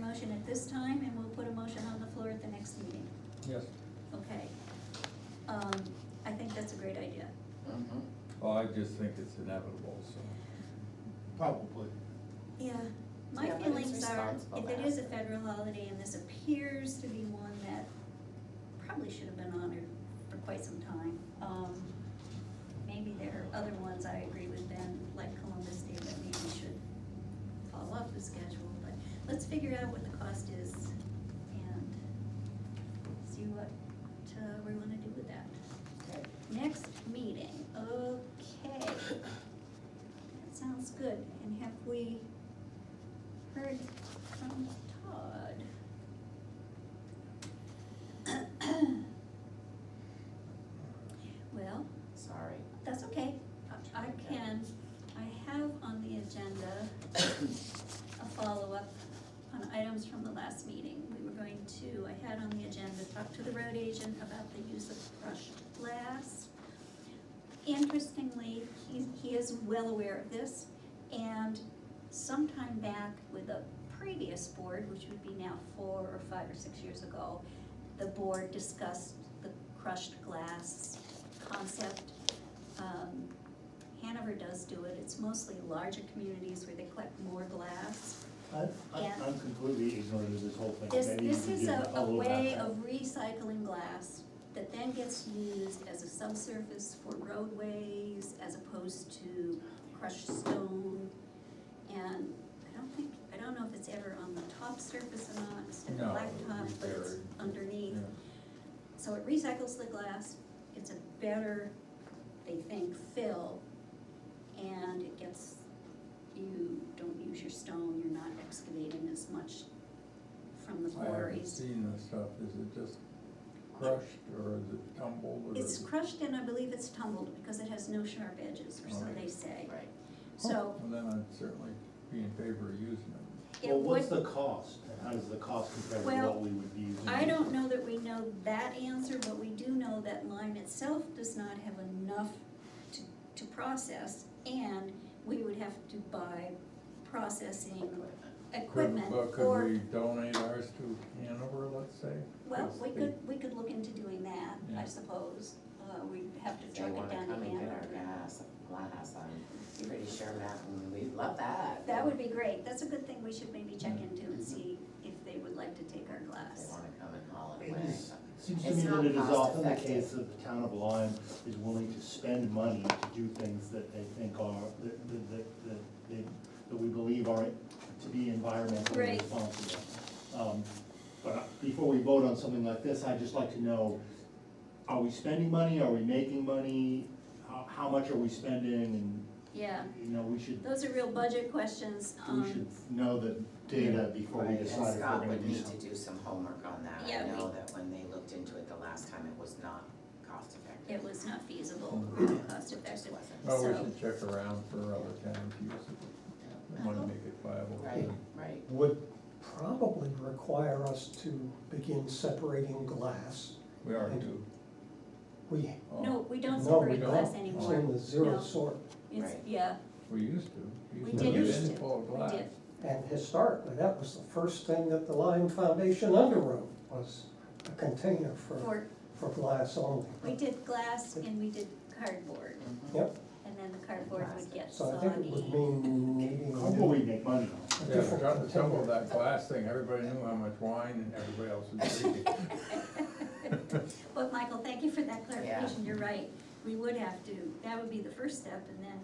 motion at this time, and we'll put a motion on the floor at the next meeting, Yes. okay? Um, I think that's a great idea. Mm-hmm. Mhm. Well, I just think it's inevitable, so. Probably. Yeah, my Yeah, but it's feelings are, responsible if to it is a ask. federal holiday and this appears to be one that probably should have been honored for quite some time, um, maybe there are other ones I agree with Ben, like Columbus Day, that maybe should fall off the schedule, but let's figure out what the cost is and see what, uh, we wanna do with that. Okay. Next meeting, okay. That sounds good, and have we heard from Todd? Well, Sorry. that's okay, I- I can, I have on the agenda a follow-up on items from the last meeting. We were going to, I had on the agenda, talk to the road agent about the use of crushed glass. Interestingly, he, he is well aware of this, and sometime back with a previous board, which would be now four or five or six years ago, the board discussed the crushed glass concept. Um, Hanover does do it, it's mostly larger communities where they collect more glass. I, I, Yeah. I'm completely ignorant of this whole thing. This, Maybe you this can is give a, a little way background. of recycling glass that then gets used as a subsurface for roadways as opposed to crushed stone. And I don't think, I don't know if it's ever on the top surface or not, instead No, of blacktop, but it's repaired. underneath. yeah. So it recycles the glass, it's a better, they think, fill, and it gets, you don't use your stone, you're not excavating as much from the I haven't quarries. seen this stuff, is it just crushed or is it tumbled or It's is it? crushed and I believe it's tumbled because it has no sharp edges, or so Alright. they say. Right. So Oh, Well, then I'd certainly be in favor of using it. it Well, what's would, the cost, and how does the cost compare to Well, what we would be using? I don't know that we know that answer, but we do know that lime itself does not have enough to, to process, and we would have to buy processing Equipment. equipment Could- But could or, we donate ours to Hanover, let's say? well, Because we they- could, we could look into doing that, I Yeah. suppose. Uh, we'd have to If they truck it wanna down to come and get our Ann gas, glass, I'm pretty sure Mountain, we'd love that. That would be great, that's a good thing we should maybe check Yeah. into and see if they would like to take our If They glass. wanna come and haul it It away. is- Seems to It's me not that it is cost often the effective. case that the town of Lyme is willing to spend money to do things that they think are, that, that, that, that, they- that we believe are to be environmentally Right. responsible. Um, but I- before we vote on something like this, I'd just like to know, are we spending money, are we making money? How, how much are we spending, Yeah, and, you know, we should, those are real budget questions, we should um, know the data before we Right, and decide if we're Scott gonna would do need to something. do some homework on that. Yeah, I we- know that when they looked into it the last time, it was not cost effective. it was not feasible, cost It just effective. wasn't. Well, we So- should check around for other towns to use it, we wanna Uh-huh. make it viable. Right, right. would probably require us to begin separating glass. We are due. We, Oh, No, we don't No, we separate glass don't. it's anymore. in the zero No. sort, It's, Right. yeah, We used to. we to did have used it to, full of we glass. did, and historically, that was the first thing that the Lime Foundation underwrote, was a container for, for, for glass only. we did glass and we did cardboard, Mhm. Yep, and then the cardboard would get so I think it would soggy. mean needing How will we a make money on it? Yeah, different trying to tumble container. that glass thing, everybody knew how much wine and everybody else was drinking. But Michael, thank you for that clarification, Yeah. you're right, we would have to, that would be the first step, and then,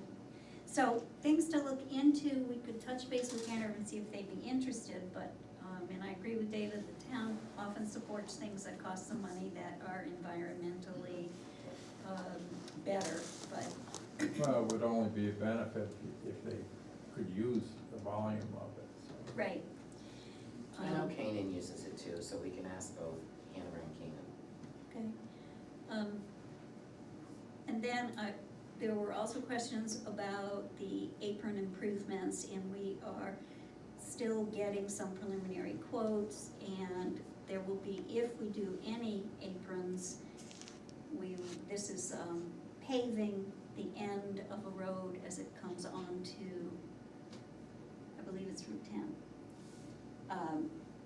so, things to look into, we could touch base with Hanover and see if they'd be interested, but, um, and I agree with David, the town often supports things that cost some money that are environmentally, um, better, but, Well, it would only be a benefit if they could use the volume of it, so. right. I know Um, Canaan uses it too, so we can ask both Hanover and Canaan. Okay. Um, And then I, there were also questions about the apron improvements and we are still getting some preliminary quotes and there will be, if we do any aprons, we, this is um, paving the end of a road as it comes on to, I believe it's Route ten. Um,